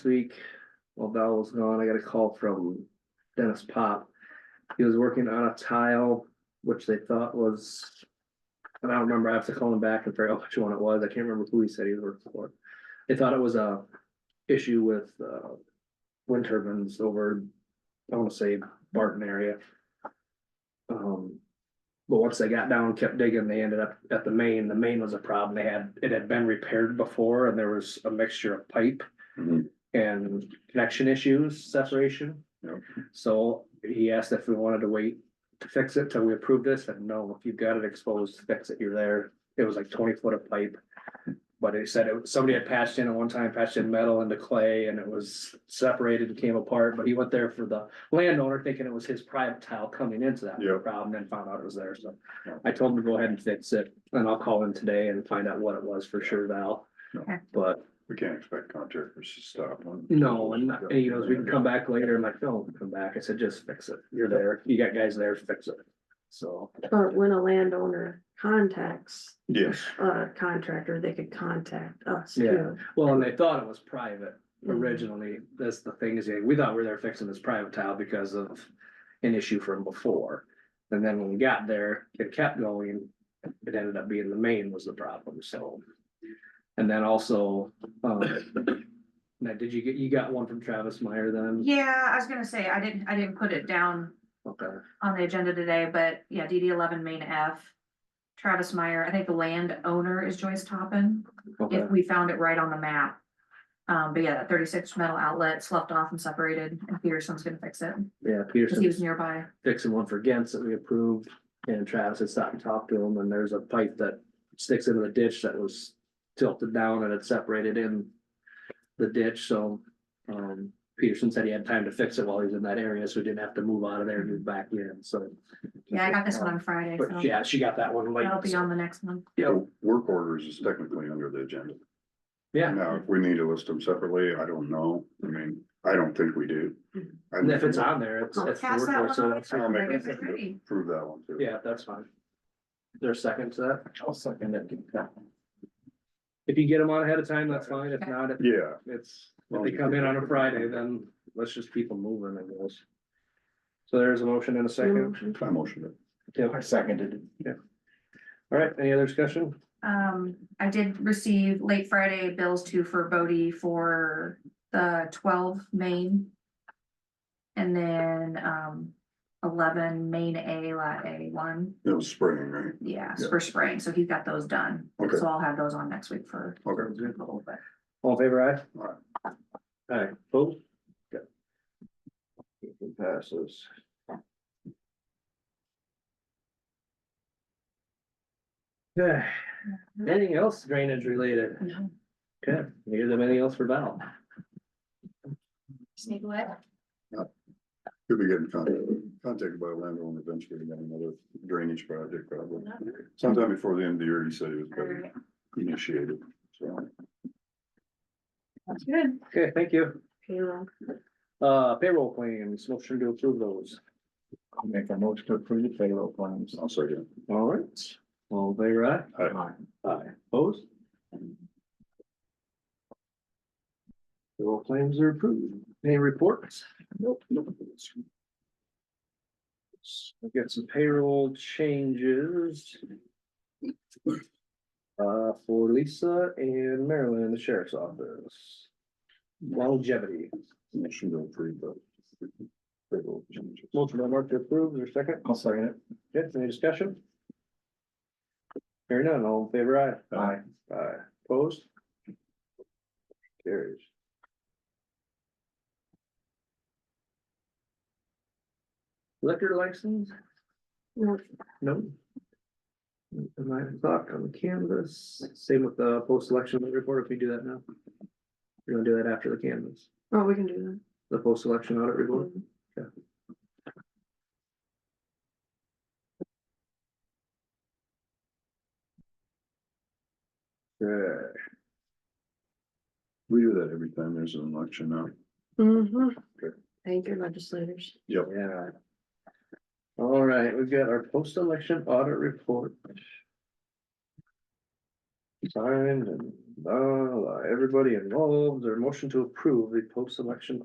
week, while Val was gone, I got a call from Dennis Pop. He was working on a tile, which they thought was. And I don't remember, I have to call him back and figure out which one it was, I can't remember who he said he was working for. They thought it was a issue with, uh, wind turbines over, I wanna say Barton area. Um, but once they got down, kept digging, they ended up at the main, the main was a problem, they had, it had been repaired before and there was a mixture of pipe Mhm. and connection issues, separation. Yep. So he asked if we wanted to wait to fix it till we approved this, and no, if you've got it exposed, fix it, you're there. It was like twenty foot of pipe. But he said it, somebody had patched in at one time, patched in metal into clay and it was separated and came apart, but he went there for the landowner thinking it was his private tile coming into that Yep. problem and found out it was there, so. Yeah. I told him to go ahead and fix it, and I'll call in today and find out what it was for sure, Val. Okay. But We can't expect contractors to stop. on- no, and not- and, you know, we can come back later, I'm like, no, come back, I said, just fix it, you're there, you got guys there, fix it. So, But when a landowner contacts Yes, a contractor, they could contact us Yeah. too. well, and they thought it was private originally, that's the thing is, yeah, we thought we were there fixing this private tile because of an issue from before. And then when we got there, it kept going, it ended up being the main was the problem, so. And then also, um, now, did you get, you got one from Travis Meyer then? Yeah, I was gonna say, I didn't, I didn't put it down Okay, on the agenda today, but yeah, DD eleven main F. Travis Meyer, I think the landowner is Joyce Toppin, okay, if we found it right on the map. Um, but yeah, that thirty-six metal outlet sloughed off and separated, and Peterson's gonna fix it, yeah, cause he was Peterson's nearby. fixing one for Gents that we approved, and Travis had stopped and talked to him, and there's a pipe that sticks into the ditch that was tilted down and it separated in the ditch, so, um, Peterson said he had time to fix it while he was in that area, so he didn't have to move out of there and move back in, so. Yeah, I got this one on Friday, But so yeah, she got that one late. that'll be on the next one. Yeah, the work orders is technically under the agenda. yeah, Now, if we need to list them separately, I don't know. I mean, I don't think we do. I and if think it's on there, it's, it's. Oh, Pass that so one on. that's- I'll make Like, a if it's motion. ready. Prove that one too. Yeah, that's fine. There's a second to that? I'll second it. If you get them on ahead of time, that's fine, if not, it- Yeah, It's, if they come in on a Friday, then let's just keep them moving, I guess. So there's a motion and a second. Motion. I motioned it. Yep. I seconded it. All right, any other discussion? Um, I did receive late Friday bills too for Bodie for the twelve main. And then, um, eleven main A lot A one, It was spring, right? yeah, Yeah. for spring, so he got those done. Okay. So I'll have those on next week for. Okay. approval, but All in favor aye? Aye. All right, vote. It passes. Yeah. Anything else drainage related? No. Okay, neither them anything else for Val. Sneak away. Could be getting con- contacted by a landowner eventually about another drainage project probably. Sometime before the end of the year, he said he was better Alright, initiated, so. That's good. Okay, thank you. Payroll. Uh, payroll claims, motion to approve those. I'll make a motion to approve the payroll claims. I'll second. All right, all in favor aye? Aye. Aye, opposed? All claims are approved. Any reports? Nope. We've got some payroll changes. Uh, for Lisa and Marilyn in the sheriff's office. Longevity, Motion to approve the. payroll changes. motion by Mark to approve, is there a second? I'll second Yes, any discussion? Hearing none, all in favor, it. aye? Aye. Aye, opposed? Carries. Liquor license? No, No. Nine o'clock on the canvas, same with the post-election audit report, if we do that now. You're gonna do that after the canvas, Oh, we can do the post-election audit report, that. yeah. We do that every time there's an election now. Mhm. Good. Thank your legislators. Yeah. All right, we've got our post-election audit report. uh, signed and blah, blah, everybody involved, or motion to approve the post-election